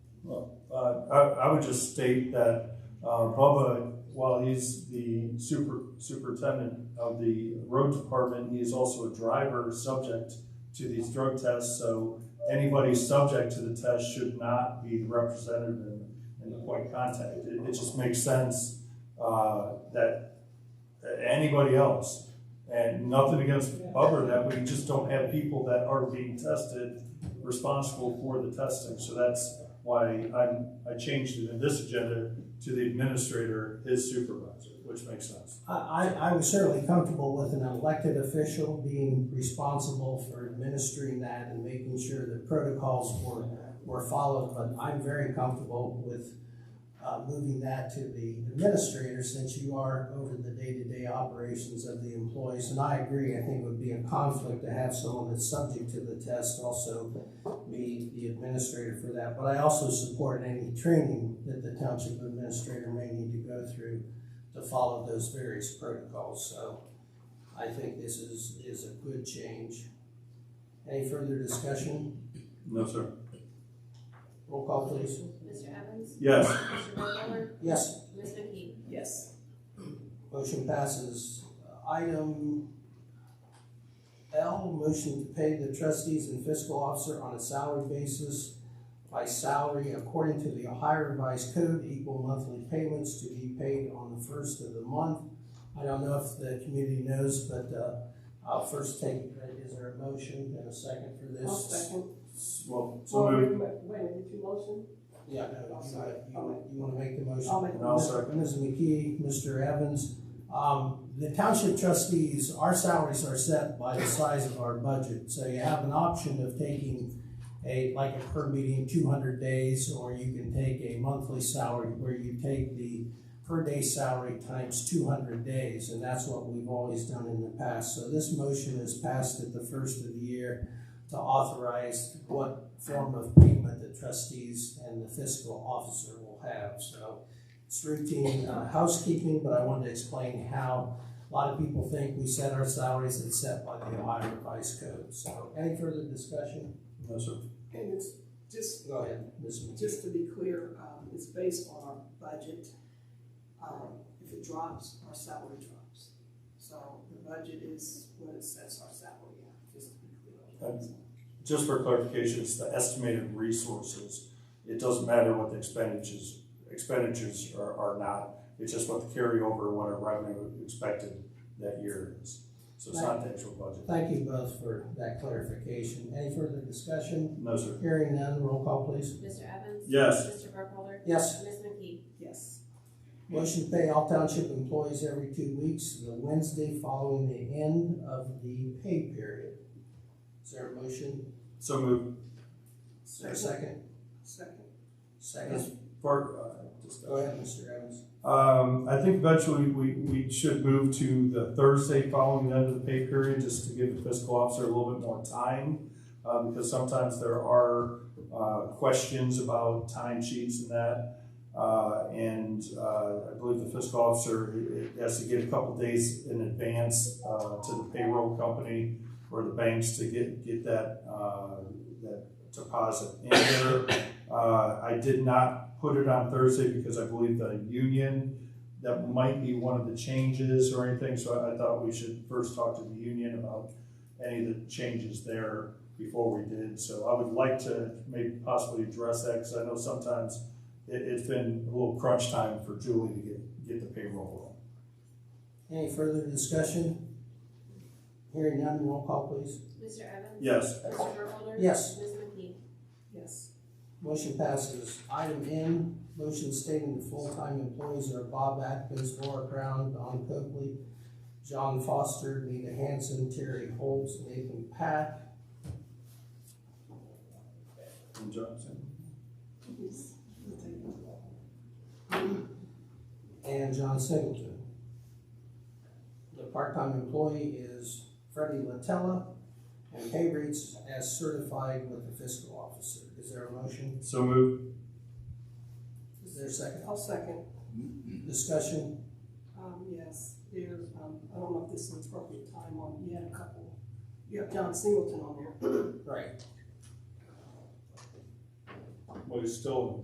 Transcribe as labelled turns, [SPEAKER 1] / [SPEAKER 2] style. [SPEAKER 1] Uh, I, I would just state that, uh, Bubba, while he's the super, superintendent of the road department, he is also a driver subject to these drug tests, so anybody subject to the test should not be represented in, in the point of contact. It, it just makes sense, uh, that that anybody else, and nothing against Bubba, that we just don't have people that are being tested responsible for the testing, so that's, why I'm, I changed it in this agenda to the administrator, his supervisor, which makes sense.
[SPEAKER 2] I, I, I was certainly comfortable with an elected official being responsible for administering that and making sure that protocols were, were followed, but I'm very comfortable with, uh, moving that to the administrator since you are over the day-to-day operations of the employees. And I agree, I think it would be a conflict to have someone that's subject to the test also be the administrator for that. But I also support any training that the township administrator may need to go through to follow those various protocols, so I think this is, is a good change. Any further discussion?
[SPEAKER 1] No, sir.
[SPEAKER 2] Roll call, please.
[SPEAKER 3] Mr. Evans?
[SPEAKER 1] Yes,
[SPEAKER 3] Mr. Burkholder?
[SPEAKER 2] Yes,
[SPEAKER 3] Ms. McKee?
[SPEAKER 4] Yes.
[SPEAKER 2] motion passes. Item L, motion to pay the trustees and fiscal officer on a salary basis by salary according to the Ohio Revised Code, equal monthly payments to be paid on the first of the month. I don't know if the community knows, but, uh, I'll first take, is there a motion and a second for this?
[SPEAKER 4] I'll second.
[SPEAKER 1] well, so
[SPEAKER 4] Well,
[SPEAKER 1] moved.
[SPEAKER 4] wait, wait, wait, did you motion?
[SPEAKER 2] Yeah, no, you gotta, you wanna- you wanna make the motion?
[SPEAKER 4] I'll make the
[SPEAKER 1] I'll second.
[SPEAKER 2] Ms. McKee, Mr. Evans, um, the township trustees, our salaries are set by the size of our budget. So you have an option of taking a, like a per meeting, two hundred days, or you can take a monthly salary where you take the per day salary times two hundred days, and that's what we've always done in the past. So this motion is passed at the first of the year to authorize what form of payment the trustees and the fiscal officer will have. So it's routine uh, housekeeping, but I wanted to explain how a lot of people think we set our salaries as set by the Ohio Revised Code. So any further discussion?
[SPEAKER 1] No, sir.
[SPEAKER 4] And it's just,
[SPEAKER 2] Go ahead, Ms. McKee.
[SPEAKER 4] just to be clear, um, it's based on our budget. Um, if it drops, our salary drops. So the budget is what it sets our salary at, just to be clear. on that.
[SPEAKER 1] Just for clarification, it's the estimated resources. It doesn't matter what the expenditures, expenditures are, are not. It's just what the carryover, what our revenue expected that year is. So it's not the actual budget.
[SPEAKER 2] Thank you both for that clarification. Any further discussion?
[SPEAKER 1] No, sir.
[SPEAKER 2] Hearing none, roll call please.
[SPEAKER 3] Mr. Evans?
[SPEAKER 1] Yes.
[SPEAKER 3] Mr. Burkholder?
[SPEAKER 2] Yes.
[SPEAKER 3] Ms. McKee?
[SPEAKER 4] Yes.
[SPEAKER 2] Motion to pay all township employees every two weeks, the Wednesday following the end of the pay period. Is there a motion?
[SPEAKER 1] So moved.
[SPEAKER 2] Is there a second?
[SPEAKER 4] Second.
[SPEAKER 2] Second.
[SPEAKER 1] Part, uh, discussion.
[SPEAKER 2] Go ahead, Mr. Evans.
[SPEAKER 1] Um, I think eventually we, we should move to the Thursday following the end of the pay period, just to give the fiscal officer a little bit more time. Uh, because sometimes there are, uh, questions about time sheets and that. Uh, and, uh, I believe the fiscal officer i- i- has to get a couple days in advance, uh, to the payroll company or the banks to get, get that, uh, that deposit in there. Uh, I did not put it on Thursday because I believe the union, that might be one of the changes or anything, so I, I thought we should first talk to the union about any of the changes there before we did, so I would like to maybe possibly address that, because I know sometimes it, it's been a little crunch time for Julie to get, get the payroll.
[SPEAKER 2] Any further discussion? Hearing none, roll call please.
[SPEAKER 3] Mr. Evans?
[SPEAKER 1] Yes,
[SPEAKER 3] Mr. Burkholder?
[SPEAKER 2] Yes.
[SPEAKER 3] Ms. McKee?
[SPEAKER 4] Yes.
[SPEAKER 2] Motion passes. Item N, motion stating the full-time employees are Bob Atkins, Laura Brown, Don Coakley, John Foster, Nita Hanson, Terry Holmes, Nathan Pat.
[SPEAKER 1] and Johnson.
[SPEAKER 4] Yes. We'll take it.
[SPEAKER 2] and John Singleton. The part-time employee is Freddie Latella, and pay rates as certified with the fiscal officer. Is there a motion?
[SPEAKER 1] So moved.
[SPEAKER 2] Is there a second?
[SPEAKER 4] I'll second.
[SPEAKER 2] Discussion?
[SPEAKER 4] Um, yes, there's, um, I don't know if this is an appropriate time on, you had a couple, you have John Singleton on there.
[SPEAKER 2] Right.
[SPEAKER 1] Well, he's still